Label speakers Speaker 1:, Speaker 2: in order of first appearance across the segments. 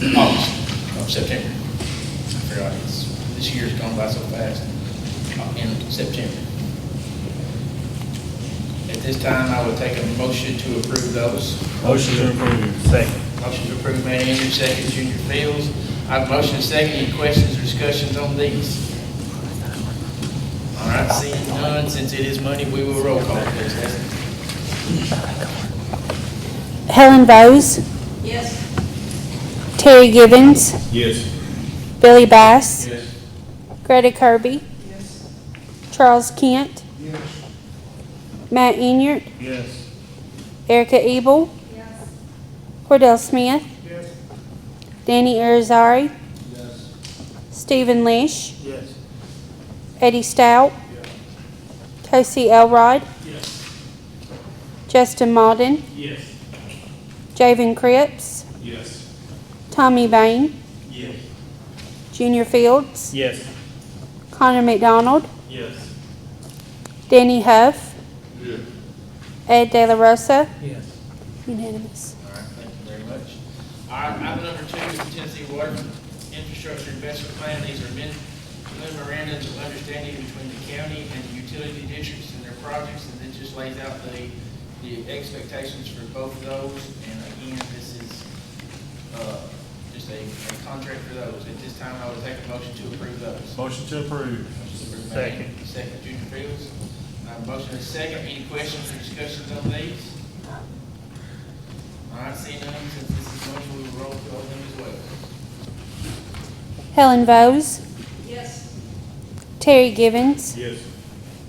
Speaker 1: August, of Oh, September. I forgot, it's, this year's gone by so fast, Uh, in September. At this time, I would take a motion to approve those.
Speaker 2: Motion to approve. Second.
Speaker 1: Motion to approve, Matt Andrews, second, Junior Fields. I have a motion and second, any questions or discussions on these? All right, seeing none, since it is money, we will roll call, please, Leslie.
Speaker 3: Helen Bowes,
Speaker 4: Yes.
Speaker 3: Terry Givens,
Speaker 2: Yes.
Speaker 3: Billy Bass,
Speaker 2: Yes.
Speaker 3: Greta Kirby, Charles Kent, Matt Inyard,
Speaker 2: Yes.
Speaker 3: Erica Ebel,
Speaker 4: Yes.
Speaker 3: Cordell Smith, Danny Irizarry,
Speaker 2: Yes.
Speaker 3: Stephen Leish,
Speaker 2: Yes.
Speaker 3: Eddie Stout, Casey Elrod, Justin Malden,
Speaker 2: Yes.
Speaker 3: Javen Cripps,
Speaker 2: Yes.
Speaker 3: Tommy Vane,
Speaker 2: Yes.
Speaker 3: Junior Fields,
Speaker 2: Yes.
Speaker 3: Connor McDonald,
Speaker 2: Yes.
Speaker 3: Danny Huff, Ed De La Rosa,
Speaker 2: Yes.
Speaker 3: unanimous.
Speaker 1: All right, thank you very much. All right, item number two is the Tennessee Water Infrastructure Investment Plan. These are men- memorandums of understanding between the county and the utility districts and their projects, and it just lays out the, the expectations for both of those. And again, this is, uh, just a, a contract for those. At this time, I would take a motion to approve those.
Speaker 2: Motion to approve. Second.
Speaker 1: Second, Junior Fields. Uh, motion is second. Any questions or discussions on these? All right, seeing none, since this is motion, we will roll call them as well.
Speaker 3: Helen Bowes,
Speaker 4: Yes.
Speaker 3: Terry Givens,
Speaker 2: Yes.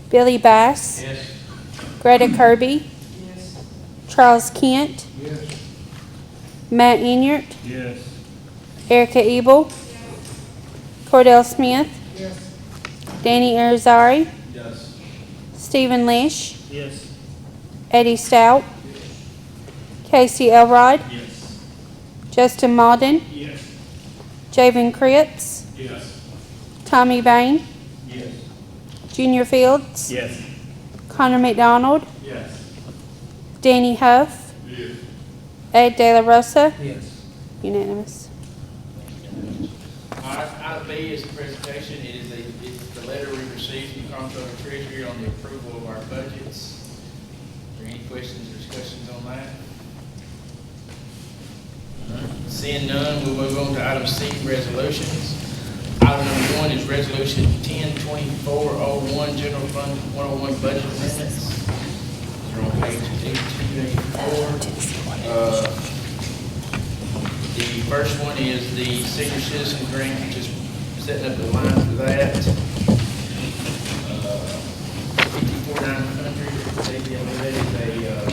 Speaker 3: Billy Bass,
Speaker 1: Yes.
Speaker 3: Greta Kirby,
Speaker 4: Yes.
Speaker 3: Charles Kent,
Speaker 2: Yes.
Speaker 3: Matt Inyard,
Speaker 2: Yes.
Speaker 3: Erica Ebel, Cordell Smith, Danny Irizarry,
Speaker 2: Yes.
Speaker 3: Stephen Leish,
Speaker 2: Yes.
Speaker 3: Eddie Stout, Casey Elrod,
Speaker 2: Yes.
Speaker 3: Justin Malden,
Speaker 2: Yes.
Speaker 3: Javen Cripps,
Speaker 2: Yes.
Speaker 3: Tommy Vane,
Speaker 2: Yes.
Speaker 3: Junior Fields,
Speaker 2: Yes.
Speaker 3: Connor McDonald,
Speaker 2: Yes.
Speaker 3: Danny Huff,
Speaker 2: Yes.
Speaker 3: Ed De La Rosa,
Speaker 2: Yes.
Speaker 3: unanimous.
Speaker 1: All right, item B is the presentation. It is a, it's the letter we received from comptroller treasury on the approval of our budgets. Are there any questions or discussions on that? Seeing none, we'll move on to item C, resolutions. Item number one is resolution ten twenty-four oh one, general fund one oh one budget amendments. You're on page eighteen eighty-four. Uh, the first one is the senior citizen grant, just setting up the line for that. Uh, Fifty-four nine hundred, they get that is a, uh,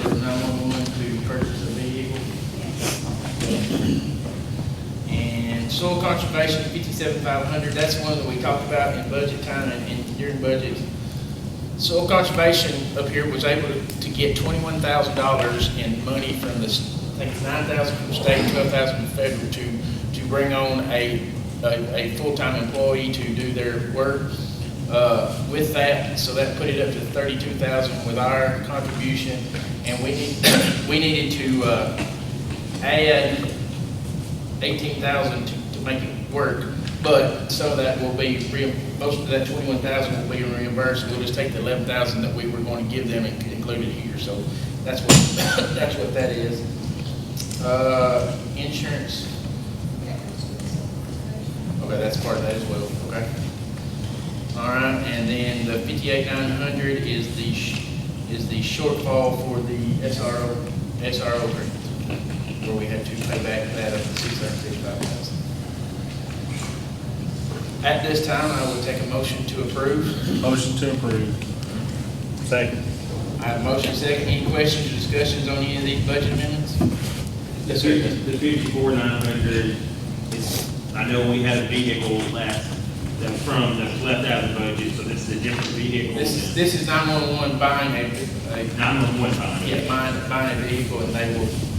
Speaker 1: for nine-one-one to purchase a vehicle. And soil conservation, fifty-seven five hundred, that's one that we talked about in budget time and- and during budget. Soil Conservation up here was able to get twenty-one thousand dollars in money from the, s- I think it's nine thousand from state, twelve thousand from federal to, to bring on a, a, a full-time employee to do their work, uh, with that. So that put it up to thirty-two thousand with our contribution. And we need, we needed to, uh, add eighteen thousand to, to make it work, but some of that will be real, most of that twenty-one thousand will be reimbursed, we'll just take the eleven thousand that we were going to give them and include it here, so that's what, that's what that is. Uh, insurance, okay, that's part of that as well, okay. All right, and then the fifty-eight nine hundred is the, sh- is the shortfall for the SRO, SRO grant, where we had to pay back that of the six hundred fifty-five thousand. At this time, I will take a motion to approve.
Speaker 2: Motion to approve. Second.
Speaker 1: I have a motion second. Any questions or discussions on any of these budget amendments?
Speaker 5: The
Speaker 1: Yes, sir.
Speaker 5: fifty-four nine hundred is, I know we had a vehicle last, that was from, that was left out of the budget, so this is a different vehicle.
Speaker 1: This is, this is nine-one-one buying a, a,
Speaker 5: Not on one time.
Speaker 1: yeah, buying, buying a vehicle, and they will uh,